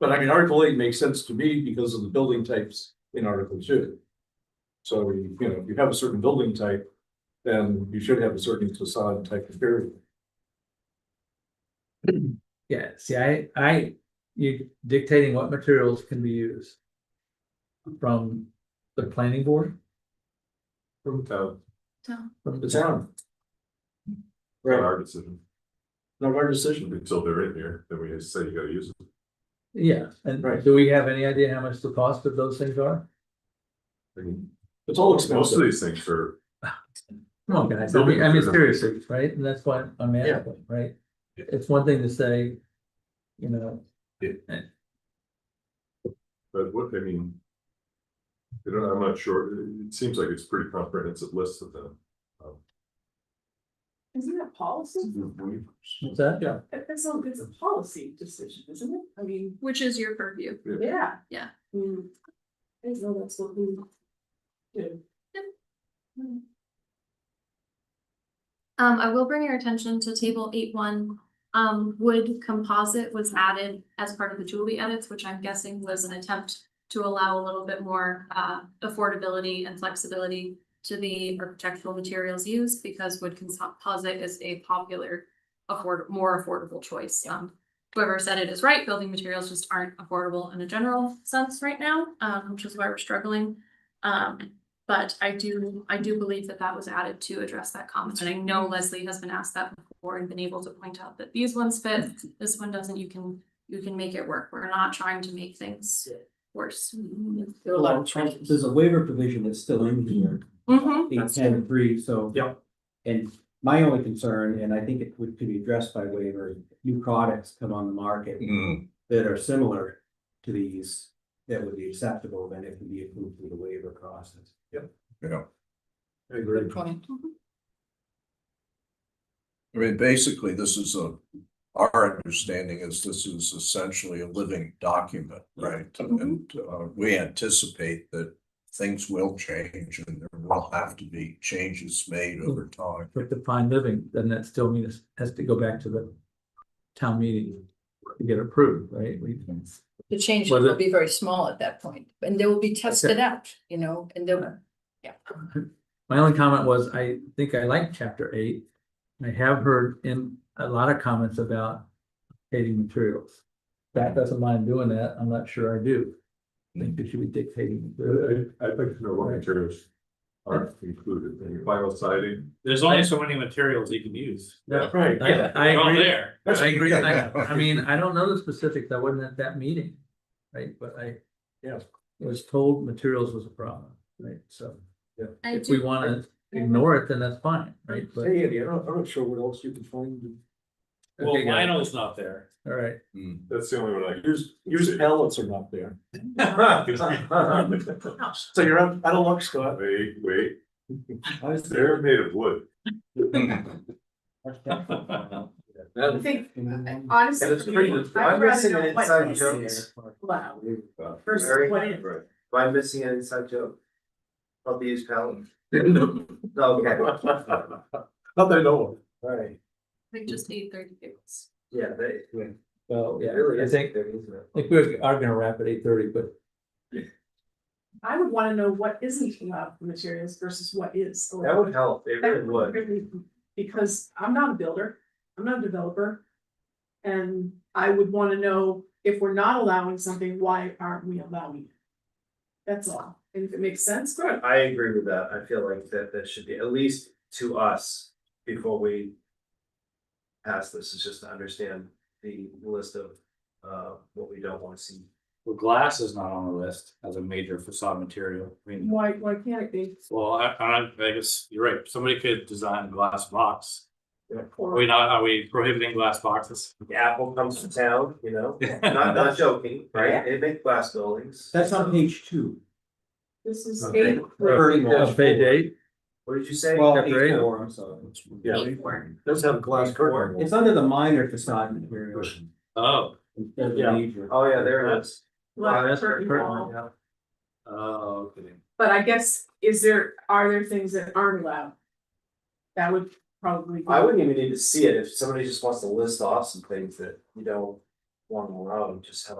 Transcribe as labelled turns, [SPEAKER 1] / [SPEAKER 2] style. [SPEAKER 1] But I mean, Article eight makes sense to me because of the building types in Article two. So, you know, if you have a certain building type, then you should have a certain facade type of area.
[SPEAKER 2] Yeah, see, I, I, you dictating what materials can be used. From the planning board,
[SPEAKER 1] From town.
[SPEAKER 2] from
[SPEAKER 1] The
[SPEAKER 2] the town,
[SPEAKER 1] town.
[SPEAKER 3] Not
[SPEAKER 1] Right,
[SPEAKER 3] our decision,
[SPEAKER 1] not our decision.
[SPEAKER 3] until they're in here, then we say you gotta use it,
[SPEAKER 2] yeah, and
[SPEAKER 1] Right.
[SPEAKER 2] do we have any idea how much the cost of those things are?
[SPEAKER 3] I mean,
[SPEAKER 1] It's all
[SPEAKER 3] most of
[SPEAKER 1] expensive.
[SPEAKER 3] these things are,
[SPEAKER 2] Come on, guys, I mean, I mean, seriously, right, and that's what I'm
[SPEAKER 1] Yeah.
[SPEAKER 2] asking, right? It's one thing to say, you know,
[SPEAKER 3] but what, I mean. You know, I'm not sure, it, it seems like it's pretty comprehensive list of them.
[SPEAKER 4] Isn't that policy?
[SPEAKER 5] Hmm,
[SPEAKER 2] what's that?
[SPEAKER 1] Yeah.
[SPEAKER 4] That- That's all, it's a policy decision, isn't it? I mean,
[SPEAKER 6] Which is your purview.
[SPEAKER 4] yeah.
[SPEAKER 6] Yeah.
[SPEAKER 4] I mean, I don't know that's what we do.
[SPEAKER 6] Um, I will bring your attention to table eight one. Um, wood composite was added as part of the Julie edits, which I'm guessing was an attempt to allow a little bit more, uh, affordability and flexibility to the architectural materials used because wood composite is a popular, afford, more affordable choice. Um, whoever said it is right, building materials just aren't affordable in a general sense right now, um, which is why we're struggling. Um, but I do, I do believe that that was added to address that comment, and I know Leslie has been asked that before and been able to point out that these ones fit, this one doesn't, you can, you can make it work, we're not trying to make things worse.
[SPEAKER 7] There are a lot of changes. There's a waiver provision that's still in here,
[SPEAKER 6] Mhm.
[SPEAKER 8] Mm-hmm.
[SPEAKER 7] eight, ten, three, so.
[SPEAKER 1] Yep.
[SPEAKER 7] And my only concern, and I think it would could be addressed by waiver, new products come on the market that are similar to these. That would be acceptable, then it can be approved through the waiver process.
[SPEAKER 1] I agree.
[SPEAKER 5] I mean, basically, this is a, our understanding is this is essentially a living document, right? And uh, we anticipate that things will change and there will have to be changes made over time.
[SPEAKER 2] For defined living, then that still means has to go back to the town meeting to get approved, right? We-
[SPEAKER 9] The changes
[SPEAKER 2] Whether-
[SPEAKER 9] will be very small at that point, and they will be tested out, you know, and they'll,
[SPEAKER 2] My only comment was, I think I like chapter eight. I have heard in a lot of comments about dictating materials. That doesn't mind doing that, I'm not sure I do. I think they should be dictating.
[SPEAKER 3] I, would like to know what materials are included, any vinyl siding,
[SPEAKER 8] There's only so many materials you can use.
[SPEAKER 2] Yeah.
[SPEAKER 1] Right,
[SPEAKER 2] I,
[SPEAKER 1] yeah.
[SPEAKER 2] I
[SPEAKER 8] They're all
[SPEAKER 2] agree,
[SPEAKER 8] there.
[SPEAKER 2] I agree, I, I mean, I don't know the specifics, I wasn't at that meeting, right, but I.
[SPEAKER 1] Yeah.
[SPEAKER 2] Was told materials was a problem, right, so
[SPEAKER 6] I
[SPEAKER 2] if we
[SPEAKER 6] do,
[SPEAKER 2] wanna ignore it, then that's fine, right, but.
[SPEAKER 1] Hey, Andy, I'm not, I'm not sure what else you can find.
[SPEAKER 8] Well,
[SPEAKER 2] Okay, guys,
[SPEAKER 8] vinyl's not there.
[SPEAKER 2] All right,
[SPEAKER 3] that's the only one I.
[SPEAKER 1] Yours, yours pallets are not there. So you're out out of luck, Scott.
[SPEAKER 3] Wait, wait,
[SPEAKER 7] I was
[SPEAKER 3] they're made of wood.
[SPEAKER 4] I think,
[SPEAKER 7] And
[SPEAKER 4] honestly.
[SPEAKER 1] it's pretty-
[SPEAKER 4] I'd
[SPEAKER 1] I'm
[SPEAKER 4] rather know what is allowed. Versus
[SPEAKER 3] Very-
[SPEAKER 4] what is-
[SPEAKER 3] right.
[SPEAKER 10] Am I missing an inside joke? About the use palette?
[SPEAKER 1] Okay.
[SPEAKER 10] Okay,
[SPEAKER 1] Not that I know of.
[SPEAKER 6] I
[SPEAKER 10] alright,
[SPEAKER 6] think just eight thirty tables.
[SPEAKER 10] yeah, they,
[SPEAKER 2] well,
[SPEAKER 10] it
[SPEAKER 2] yeah,
[SPEAKER 10] really
[SPEAKER 2] I
[SPEAKER 10] is
[SPEAKER 2] think,
[SPEAKER 10] there, isn't it?
[SPEAKER 2] like, we are gonna wrap at eight thirty, but
[SPEAKER 4] I would wanna know what isn't allowed for materials versus what is. allowed.
[SPEAKER 10] That would help, it
[SPEAKER 4] That
[SPEAKER 10] really would.
[SPEAKER 4] really- Because I'm not a builder, I'm not a developer. And I would wanna know if we're not allowing something, why aren't we allowing it? That's all, and if it makes sense, good.
[SPEAKER 10] I agree with that, I feel like that, that should be, at least to us, before we. Pass this, is just to understand the list of, uh, what we don't wanna see.
[SPEAKER 8] Well, glass is not on the list as a major facade material. I mean,
[SPEAKER 4] Why, why can't it be?
[SPEAKER 8] well, I, I don't- I guess you're right. Somebody could design a glass box. Are
[SPEAKER 4] Or
[SPEAKER 8] we not, are we prohibiting glass boxes?
[SPEAKER 10] Apple comes to town, you know, not, not joking, right, they make glass buildings.
[SPEAKER 7] That's on page two.
[SPEAKER 4] this is
[SPEAKER 10] Okay.
[SPEAKER 4] eight,
[SPEAKER 2] Uh, page eight.
[SPEAKER 10] What did you say?
[SPEAKER 7] Well,
[SPEAKER 2] Chapter
[SPEAKER 7] eight
[SPEAKER 2] eight.
[SPEAKER 7] four, I'm sorry.
[SPEAKER 1] Yeah,
[SPEAKER 6] Eight four.
[SPEAKER 1] does have a glass curtain.
[SPEAKER 7] It's under the minor facade material
[SPEAKER 8] Oh,
[SPEAKER 7] instead of
[SPEAKER 1] Yeah.
[SPEAKER 7] major.
[SPEAKER 10] Oh, yeah, there it is.
[SPEAKER 4] like,
[SPEAKER 10] Oh, that's
[SPEAKER 4] curtain
[SPEAKER 10] curtain
[SPEAKER 4] wall.
[SPEAKER 10] wall, yeah.
[SPEAKER 8] oh, okay.
[SPEAKER 4] But I guess, is there, are there things that aren't allowed? That would probably. be-
[SPEAKER 10] I wouldn't even need to see it if somebody just wants to list off some things that you don't want to allow, just have